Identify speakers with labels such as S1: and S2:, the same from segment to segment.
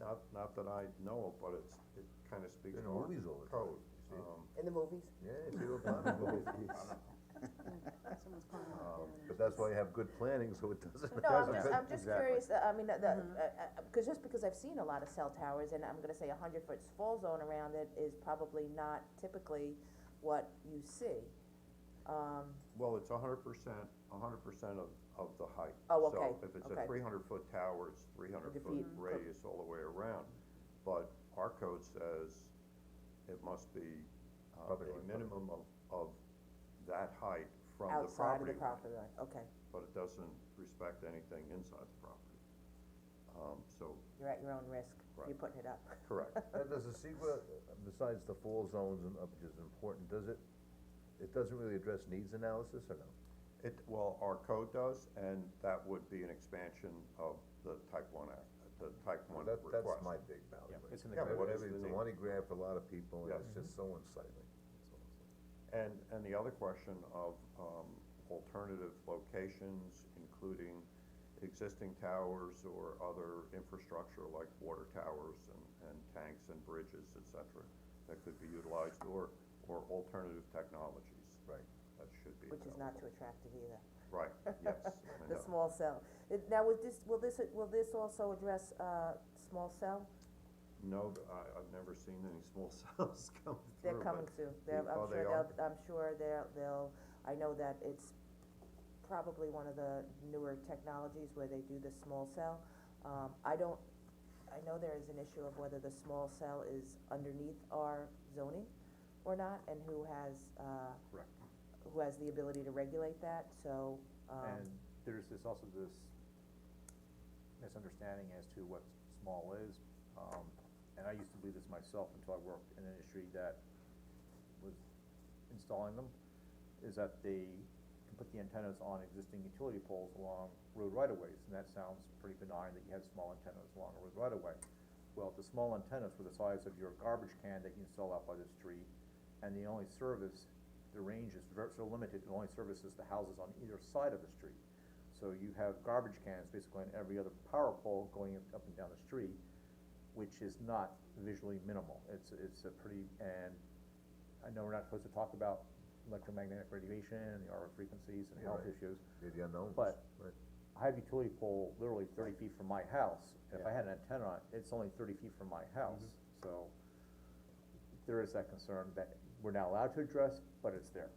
S1: Not, not that I know of, but it's, it kinda speaks
S2: In
S1: to our
S2: movies all the time,
S1: code,
S2: you see it.
S1: um,
S3: In the movies?
S2: Yeah, if you were planning, well, it's-
S4: Someone's calling out there.
S2: Um, but that's why you have good planning, so it doesn't.
S3: No, I'm
S1: Doesn't
S3: just,
S1: fit.
S3: I'm just
S1: Exactly.
S3: curious, uh, I mean, uh, the, because just because I've seen a lot of cell towers, and I'm gonna say a hundred foot fall zone around it is probably not typically what you see. Um,
S1: well, it's a hundred percent, a hundred percent of, of the height.
S3: Oh, okay,
S1: So if it's
S3: okay.
S1: a three hundred foot tower, it's three hundred
S3: The
S1: foot
S3: feet, co-
S1: radius all the way around, but our code says it must be uh,
S2: Property
S1: a
S2: line,
S1: minimum of, of that height from the
S3: outside of
S1: property
S3: the
S1: line,
S3: property line, okay,
S1: But it doesn't respect anything inside the property. Um, so,
S3: you're at your own risk, you're
S1: Right.
S3: putting it up.
S1: correct.
S2: Now, does the SEQA, besides the fall zones and up, which is important, does it, it doesn't really address needs analysis or no?
S1: It, well, our code does, and that would be an expansion of the type one act, the type one
S2: That,
S1: request.
S2: that's my big battle.
S5: Yeah, it's an
S1: Yeah, but what is
S2: It's
S1: the
S2: a
S1: need?
S2: money grab for a lot of people, and
S1: Yes.
S2: it's just so unsightly.
S1: And, and the other question of, um, alternative locations, including existing towers or other infrastructure like water towers and, and tanks and bridges, et cetera, that could be utilized, or, or alternative technologies.
S2: Right.
S1: That should be
S3: Which is not too
S1: available.
S3: attractive either,
S1: Right, yes, I
S3: the
S1: know.
S3: small cell. It- Now, would this, will this, will this also address, uh, small cell?
S1: No, I, I've never seen any small cells come through.
S3: They're
S1: but-
S3: coming soon, they're,
S1: Oh,
S3: I'm
S1: they
S3: sure
S1: are?
S3: they'll, I'm sure they'll, they'll, I know that it's probably one of the newer technologies where they do the small cell. Um, I don't, I know there is an issue of whether the small cell is underneath our zoning or not, and who has, uh,
S5: Correct.
S3: who has the ability to regulate that, so, um,
S5: And there's this, also this misunderstanding as to what small is. Um, and I used to believe this myself until I worked in an industry that was installing them, is that they can put the antennas on existing utility poles along road right-of-ways. And that sounds pretty benign, that you have small antennas along a road right-of-way. Well, the small antennas were the size of your garbage can that you install out by the street, and they only service, the range is ver- so limited, it only services the houses on either side of the street. So you have garbage cans basically on every other power pole going up- up and down the street, which is not visually minimal. It's, it's a pretty, and I know we're not supposed to talk about electromagnetic radiation and the RF frequencies and
S2: Yeah,
S5: health
S2: right.
S5: issues.
S2: They're the unknowns.
S5: But-
S2: Right.
S5: I have a utility pole literally thirty feet from my house, and if I had an antenna on it, it's only thirty feet from my house,
S2: Mm-hmm.
S5: so. There is that concern that we're not allowed to address, but it's there,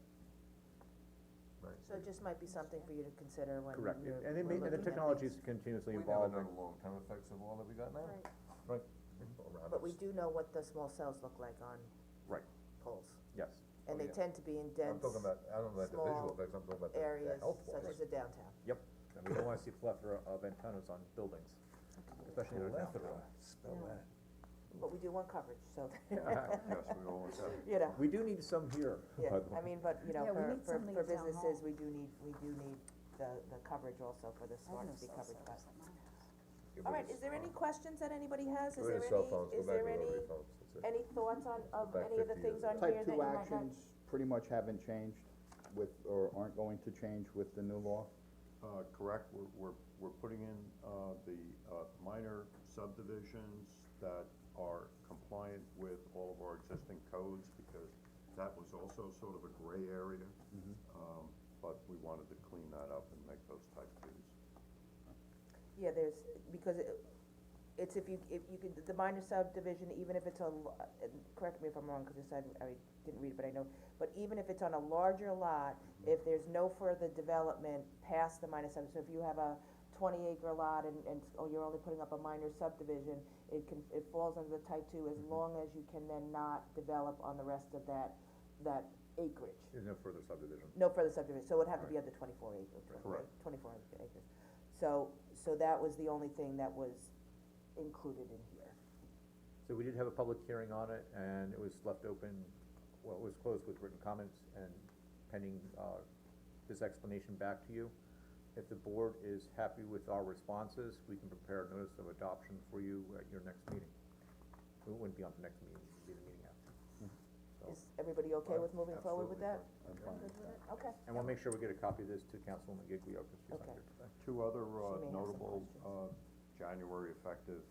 S2: Right.
S3: so it just might be something for you to consider when you're,
S5: correct,
S3: we're looking
S5: and it may, and the
S3: at
S5: technology
S3: these.
S5: is continuously
S2: We never
S5: evolving.
S2: know the long-term effects of all that we got now.
S4: Right.
S2: Right. Around
S3: But we
S2: us.
S3: do know what the small cells look like on
S5: Right,
S3: poles,
S5: yes,
S3: and
S2: Oh,
S3: they
S2: yeah.
S3: tend to be in
S2: I'm
S3: dense
S2: talking about, I don't know about the
S3: small
S2: visual effects, I'm talking about the, the
S3: areas
S2: health
S3: such
S2: wise.
S3: as the downtown.
S5: yep, and we don't wanna see plethora of antennas on buildings, especially in our town.
S2: spell that.
S3: But we do want coverage, so,
S1: Yes, we always have.
S3: you know,
S5: We do need some here,
S3: yeah,
S5: by the way.
S3: I mean, but, you know,
S4: Yeah, we
S3: for,
S4: need
S3: for,
S4: something
S3: for
S4: at town
S3: businesses,
S4: hall.
S3: we do need, we do need the, the coverage also for the
S4: I have
S3: smart
S4: no
S3: to be
S4: cell
S3: covered by.
S4: service at my house.
S3: All right, is there any questions that anybody has, is
S2: Go
S3: there
S2: to
S3: any,
S2: cell phones, go
S3: is
S2: back
S3: there
S2: to
S3: any,
S2: rotary phones, that's it.
S3: any thoughts on, of
S2: Back
S3: any of the
S2: 50
S3: things
S2: years
S3: on
S2: ago.
S3: here
S6: Type
S3: that you
S6: two
S3: might not?
S6: actions pretty much haven't changed with, or aren't going to change with the new law?
S1: Uh, correct, we're, we're, we're putting in, uh, the, uh, minor subdivisions that are compliant with all of our existing codes, because that was also sort of a gray area.
S3: Mm-hmm.
S1: Um, but we wanted to clean that up and make those type twos.
S3: Yeah, there's, because it, it's if you, if you could, the minor subdivision, even if it's a, l- uh, correct me if I'm wrong, cause this, I, I didn't read it, but I know, but even if it's on a larger lot, if there's no further development past the minor sub, so if you have a twenty acre lot and, and, oh, you're only putting up a minor subdivision, it can, it falls under the type two as long as you can then not develop on the rest of that, that acreage.
S2: There's no further subdivision.
S3: No further subdivision, so it would have to be under twenty-four acres, twenty-four
S1: Correct.
S3: acres. So, so that was the only thing that was included in here.
S5: So we did have a public hearing on it, and it was left open, well, it was closed with written comments and pending, uh, this explanation back to you. If the board is happy with our responses, we can prepare a notice of adoption for you at your next meeting. It wouldn't be on the next meeting, it'd be the meeting after. So-
S3: Is everybody okay with moving forward with that? Okay,
S5: And we'll make sure we get a copy of this to Councilwoman Giglio, because she's not
S3: Okay.
S5: here today.
S1: Two other,
S3: She may have
S1: uh,
S3: some
S1: notable,
S3: questions.
S1: uh, January effective